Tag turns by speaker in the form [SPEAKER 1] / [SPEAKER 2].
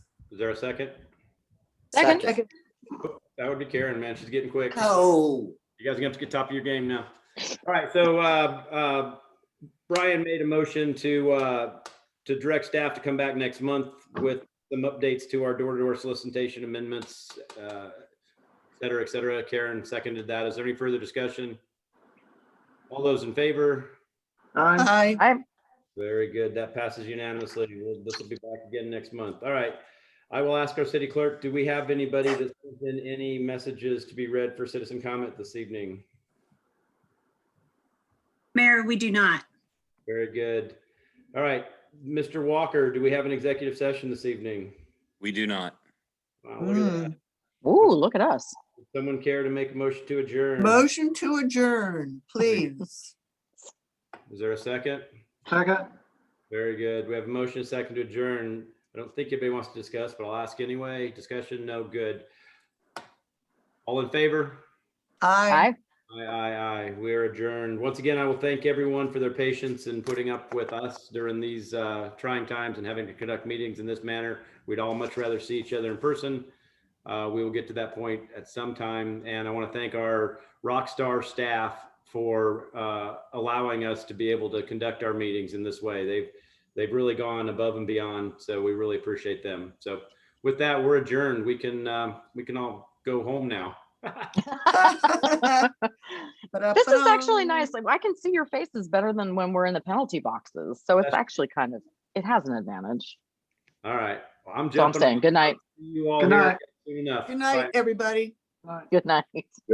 [SPEAKER 1] Is there a second?
[SPEAKER 2] Second.
[SPEAKER 1] That would be Karen, man. She's getting quick.
[SPEAKER 2] Oh,
[SPEAKER 1] You guys are gonna have to get top of your game now. All right, so uh, uh, Brian made a motion to uh, to direct staff to come back next month with some updates to our door-to-door solicitation amendments, uh, et cetera, et cetera. Karen seconded that. Is there any further discussion? All those in favor?
[SPEAKER 3] Uh-huh.
[SPEAKER 4] Aye.
[SPEAKER 5] Aye.
[SPEAKER 1] Very good. That passes unanimously. We'll- This will be back again next month. All right. I will ask our city clerk, do we have anybody that's in any messages to be read for citizen comment this evening?
[SPEAKER 3] Mayor, we do not.
[SPEAKER 1] Very good. All right, Mr. Walker, do we have an executive session this evening?
[SPEAKER 6] We do not.
[SPEAKER 1] Wow, look at that.
[SPEAKER 7] Ooh, look at us.
[SPEAKER 1] Would Someone care to make a motion to
[SPEAKER 7] Mm.
[SPEAKER 1] adjourn?
[SPEAKER 5] Motion to adjourn, please.
[SPEAKER 1] Is there a second?
[SPEAKER 4] Second.
[SPEAKER 1] Very good. We have a motion, a second to adjourn. I don't think anybody wants to discuss, but I'll ask anyway. Discussion, no good. All in favor?
[SPEAKER 5] Aye.
[SPEAKER 7] Aye.
[SPEAKER 1] Aye, aye, aye. We are adjourned. Once again, I will thank everyone for their patience and putting up with us during these uh, trying times and having to conduct meetings in this manner. We'd all much rather see each other in person. Uh, We will get to that point at some time. And I want to thank our rock star staff for uh, allowing us to be able to conduct our meetings in this way. They've, they've really gone above and beyond. So we really appreciate them. So with that, we're adjourned. We can, um, we can all go home now.
[SPEAKER 7] This is actually nice. Like I can see your faces better than when we're in the penalty boxes. So it's
[SPEAKER 1] That's-
[SPEAKER 7] actually kind of, it has an advantage.
[SPEAKER 1] All right. Well, I'm
[SPEAKER 7] So I'm
[SPEAKER 1] jumping.
[SPEAKER 7] saying, good night,
[SPEAKER 1] See you all
[SPEAKER 4] Good
[SPEAKER 1] here
[SPEAKER 4] night.
[SPEAKER 1] soon enough.
[SPEAKER 5] Good
[SPEAKER 1] Bye.
[SPEAKER 5] night, everybody.
[SPEAKER 7] good night.